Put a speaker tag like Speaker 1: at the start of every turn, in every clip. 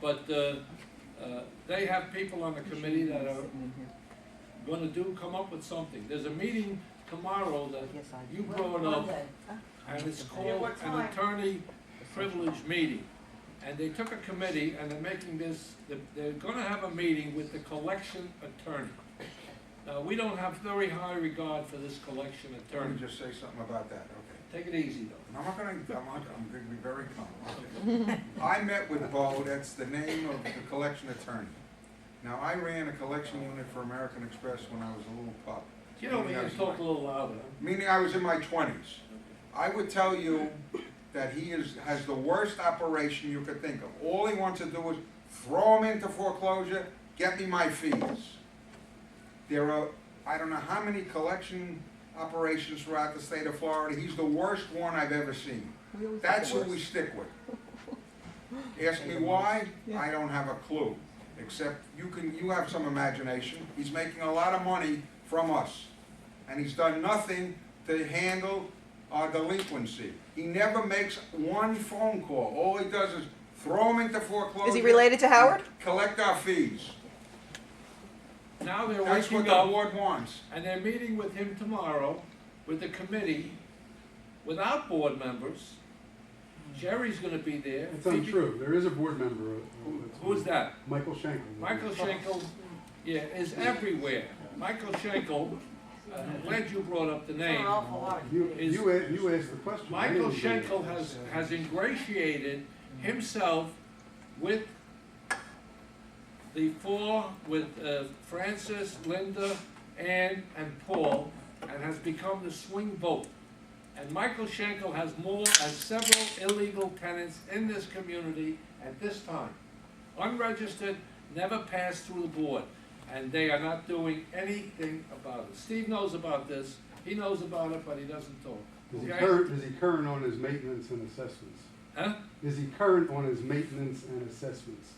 Speaker 1: But uh, uh, they have people on the committee that are gonna do, come up with something. There's a meeting tomorrow that
Speaker 2: Yes, I
Speaker 1: you brought up, and it's called
Speaker 3: what
Speaker 1: an
Speaker 3: time?
Speaker 1: attorney privilege meeting. And they took a committee and they're making this, they're- they're gonna have a meeting with the collection attorney. Now, we don't have very high regard for this collection
Speaker 4: Let me
Speaker 1: attorney.
Speaker 4: just say something about that, okay?
Speaker 1: Take it easy though.
Speaker 4: And I'm not gonna, I'm not, I'm gonna be very calm. okay? I met with Bo, that's the name of the collection attorney. Now, I ran a collection unit for American Express when I was a little pup,
Speaker 1: You know, we can talk a little louder.
Speaker 4: meaning I was in my twenties. I would tell you that he is, has the worst operation you could think of. All he wants to do is throw him into foreclosure, get me my fees. There are, I don't know how many collection operations throughout the state of Florida, he's the worst one I've ever seen. That's who we stick with. Ask me why, I don't have a clue, except you can, you have some imagination. He's making a lot of money from us, and he's done nothing to handle our delinquency. He never makes one phone call, all he does is throw him into foreclosure.
Speaker 2: Is he related to Howard?
Speaker 4: Collect our fees,
Speaker 1: Now they're
Speaker 4: that's what
Speaker 1: waking
Speaker 4: the
Speaker 1: up.
Speaker 4: board wants.
Speaker 1: And they're meeting with him tomorrow, with the committee, without board members. Jerry's gonna be there.
Speaker 5: That's
Speaker 1: Phoebe-
Speaker 5: untrue, there is a board member. uh,
Speaker 1: Who-
Speaker 5: that's-
Speaker 1: Who's that?
Speaker 5: Michael Shanklin.
Speaker 1: Michael Schenkel, yeah, is everywhere. Michael Schenkel, uh, I'm glad you brought up the
Speaker 3: It's an
Speaker 1: name.
Speaker 3: awful lot of
Speaker 5: You,
Speaker 3: things.
Speaker 1: is-
Speaker 5: you a- you asked the question. I
Speaker 1: Michael
Speaker 5: didn't do it.
Speaker 1: Schenkel has, has ingratiated himself with the four, with uh, Francis, Linda, Ann, and Paul, and has become the swing vote. And Michael Schenkel has more than several illegal tenants in this community at this time. Unregistered, never passed through the board, and they are not doing anything about it. Steve knows about this, he knows about it, but he doesn't talk.
Speaker 5: Is he
Speaker 1: Okay?
Speaker 5: current, is he current on his maintenance and assessments?
Speaker 1: Huh?
Speaker 5: Is he current on his maintenance and assessments?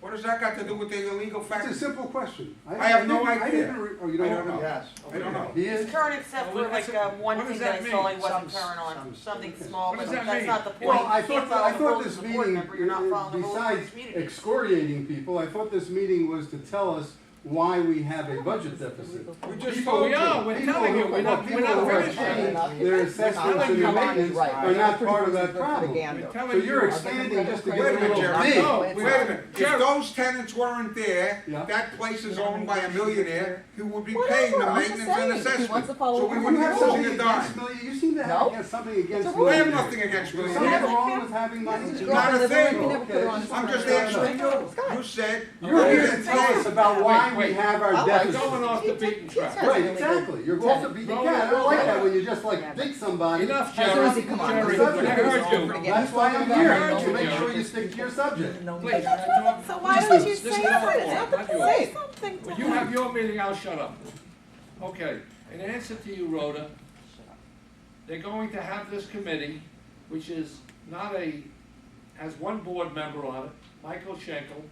Speaker 4: What does that got to do with the illegal
Speaker 5: It's a
Speaker 4: factor?
Speaker 5: simple question.
Speaker 4: I have no
Speaker 5: didn't- I
Speaker 4: idea.
Speaker 5: didn't re- Oh, you don't
Speaker 4: I don't
Speaker 5: know?
Speaker 4: know.
Speaker 6: Yes.
Speaker 4: I don't know.
Speaker 5: He
Speaker 3: It's
Speaker 5: is?
Speaker 3: current except
Speaker 1: Well,
Speaker 3: for like
Speaker 1: that's-
Speaker 3: uh, one
Speaker 1: what does
Speaker 3: thing that
Speaker 1: that
Speaker 3: I saw he
Speaker 1: mean?
Speaker 3: wasn't
Speaker 6: Some-
Speaker 3: current on,
Speaker 6: some-
Speaker 3: something small,
Speaker 1: What
Speaker 3: but
Speaker 1: does that
Speaker 3: that's
Speaker 1: mean?
Speaker 3: not the point.
Speaker 5: Well, I
Speaker 3: You can't
Speaker 5: thought,
Speaker 3: follow
Speaker 5: I
Speaker 3: the
Speaker 5: thought
Speaker 3: rules as
Speaker 5: this
Speaker 3: a board
Speaker 5: meeting, uh,
Speaker 3: member, You're not following the rules of
Speaker 5: besides
Speaker 3: this community.
Speaker 5: excoriating people, I thought this meeting was to tell us why we have a budget deficit.
Speaker 4: We just
Speaker 1: People,
Speaker 4: told
Speaker 1: we
Speaker 4: you.
Speaker 1: are, we're telling you, we're not, we're not finished yet.
Speaker 5: Their assessments and their maintenance are not part of that problem.
Speaker 1: We're
Speaker 2: Propaganda.
Speaker 1: telling
Speaker 5: So you're
Speaker 1: you.
Speaker 5: expanding just to
Speaker 4: Wait a
Speaker 5: get a
Speaker 4: minute,
Speaker 5: little
Speaker 4: Jerry.
Speaker 5: dig.
Speaker 1: No,
Speaker 4: Wait a minute, if
Speaker 1: Jerry.
Speaker 4: those tenants weren't there,
Speaker 5: Yeah.
Speaker 4: that place is owned by a millionaire, he would be
Speaker 7: Whatever,
Speaker 4: paying the
Speaker 7: I'm just
Speaker 4: maintenance and
Speaker 7: saying, if he wants
Speaker 4: assessment.
Speaker 7: to follow
Speaker 4: So
Speaker 7: the
Speaker 4: we
Speaker 7: rules,
Speaker 4: wouldn't
Speaker 5: You
Speaker 4: have
Speaker 5: have
Speaker 4: something
Speaker 5: something
Speaker 4: to
Speaker 5: against,
Speaker 4: dime.
Speaker 5: mil- you seem to have
Speaker 7: No.
Speaker 5: against something against
Speaker 7: rule.
Speaker 4: I have
Speaker 5: millionaires.
Speaker 4: nothing against
Speaker 5: There's something
Speaker 4: millionaires,
Speaker 5: wrong with having money.
Speaker 4: Not a thing. I'm
Speaker 7: I'm
Speaker 4: just
Speaker 5: Fair
Speaker 4: answering
Speaker 5: enough.
Speaker 4: you, you said.
Speaker 5: You're here to
Speaker 4: Wait.
Speaker 5: tell us about why
Speaker 1: Wait,
Speaker 5: we
Speaker 1: wait.
Speaker 5: have our
Speaker 7: I'll let
Speaker 5: deficit.
Speaker 7: go
Speaker 1: Going off the beaten track.
Speaker 5: Right, exactly, you're off the beat, yeah, I don't like that when you just like dig somebody.
Speaker 1: Enough,
Speaker 5: Has
Speaker 1: Jerry.
Speaker 5: nothing to do with
Speaker 1: Jerry,
Speaker 5: the
Speaker 1: I heard
Speaker 5: subject.
Speaker 1: you.
Speaker 5: That's why I'm
Speaker 1: I
Speaker 5: here,
Speaker 1: heard
Speaker 5: to
Speaker 1: you,
Speaker 5: make sure
Speaker 1: Jerry.
Speaker 5: you stick to your subject.
Speaker 1: Please.
Speaker 7: So why would you
Speaker 1: This is not
Speaker 7: say that?
Speaker 1: a
Speaker 7: It's
Speaker 1: law,
Speaker 7: not the
Speaker 1: not yours.
Speaker 7: place. Something
Speaker 1: When
Speaker 7: to
Speaker 1: you have your meeting, I'll shut up. Okay, in answer to you, Rhoda, they're going to have this committee, which is not a, has one board member on it, Michael Schenkel,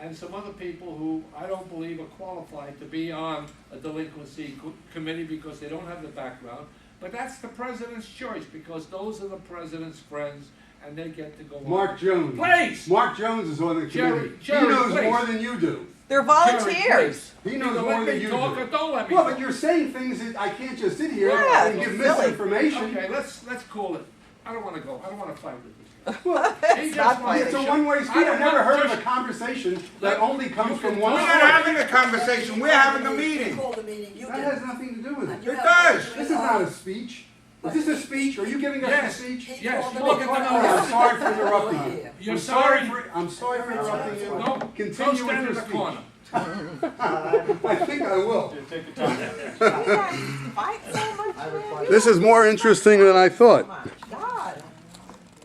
Speaker 1: and some other people who I don't believe are qualified to be on a delinquency co- committee because they don't have the background. But that's the president's choice, because those are the president's friends, and they get to go on.
Speaker 5: Mark Jones.
Speaker 1: Please!
Speaker 5: Mark Jones is on the
Speaker 1: Jerry,
Speaker 5: committee. He
Speaker 1: Jerry,
Speaker 5: knows
Speaker 1: please.
Speaker 5: more than you do.
Speaker 2: They're
Speaker 1: Jerry,
Speaker 2: volunteers.
Speaker 1: please.
Speaker 5: He
Speaker 1: Either
Speaker 5: knows more
Speaker 1: let
Speaker 5: than
Speaker 1: me
Speaker 5: you
Speaker 1: talk or
Speaker 5: do.
Speaker 1: don't let me
Speaker 5: Well,
Speaker 1: talk.
Speaker 5: but you're saying things that I can't just sit here
Speaker 2: Yeah,
Speaker 5: and give
Speaker 2: it's silly.
Speaker 5: misinformation.
Speaker 1: Okay, let's, let's call it, I don't wanna go, I don't wanna fight with this
Speaker 5: Well,
Speaker 1: guy. He just
Speaker 2: not
Speaker 1: wants to
Speaker 5: It's a
Speaker 1: shut-
Speaker 5: one-way street.
Speaker 1: I
Speaker 5: I've never
Speaker 1: want
Speaker 5: heard of
Speaker 1: just-
Speaker 5: a conversation that only comes from
Speaker 4: We're
Speaker 5: one
Speaker 4: not
Speaker 5: source.
Speaker 4: having a conversation, we're having a meeting.
Speaker 8: Call the meeting, you
Speaker 5: That
Speaker 8: did.
Speaker 5: has nothing to do with it.
Speaker 4: It does.
Speaker 5: This is not a speech. Is this a speech? Are you giving
Speaker 1: Yes.
Speaker 5: us a speech?
Speaker 1: Yes,
Speaker 8: He
Speaker 1: look
Speaker 5: Oh,
Speaker 1: at
Speaker 8: called
Speaker 1: the
Speaker 5: oh, I'm
Speaker 1: notice.
Speaker 5: sorry for interrupting you.
Speaker 1: You're
Speaker 5: I'm
Speaker 1: sorry,
Speaker 5: for- I'm sorry for interrupting you.
Speaker 1: no, go
Speaker 5: Continue
Speaker 1: stand
Speaker 5: with your
Speaker 1: in the
Speaker 5: speech.
Speaker 1: corner.
Speaker 5: I think I will.
Speaker 2: You guys fight so much,
Speaker 6: I
Speaker 2: man.
Speaker 6: replied-
Speaker 2: You
Speaker 9: This is more interesting than I
Speaker 2: so
Speaker 9: thought.
Speaker 2: much. God,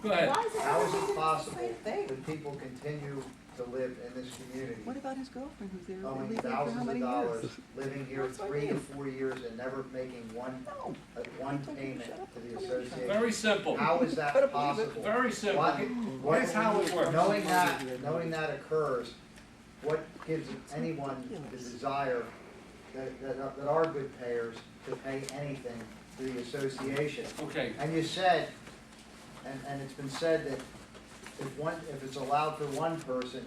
Speaker 1: Go ahead.
Speaker 2: why is it
Speaker 6: How is
Speaker 2: everybody doing
Speaker 6: it
Speaker 2: the
Speaker 6: possible
Speaker 2: same thing?
Speaker 6: that people continue to live in this community,
Speaker 7: What about his girlfriend who's there
Speaker 6: owing
Speaker 7: illegally for how
Speaker 6: thousands
Speaker 7: many
Speaker 6: of
Speaker 7: years?
Speaker 6: dollars, living here
Speaker 7: That's what I
Speaker 6: three to
Speaker 7: mean.
Speaker 6: four years and never making one,
Speaker 7: No.
Speaker 6: uh, one
Speaker 7: Don't you
Speaker 6: payment
Speaker 7: shut up
Speaker 6: to
Speaker 7: and
Speaker 6: the
Speaker 7: tell me you're
Speaker 6: association?
Speaker 1: Very simple,
Speaker 6: How is that possible?
Speaker 1: very simple.
Speaker 6: What- what-
Speaker 1: Here's how it works.
Speaker 6: Knowing that, knowing that occurs, what gives anyone the desire that, that, that are good payers to pay anything to the association?
Speaker 1: Okay,
Speaker 6: And you said, and, and it's been said that if one, if it's allowed for one person,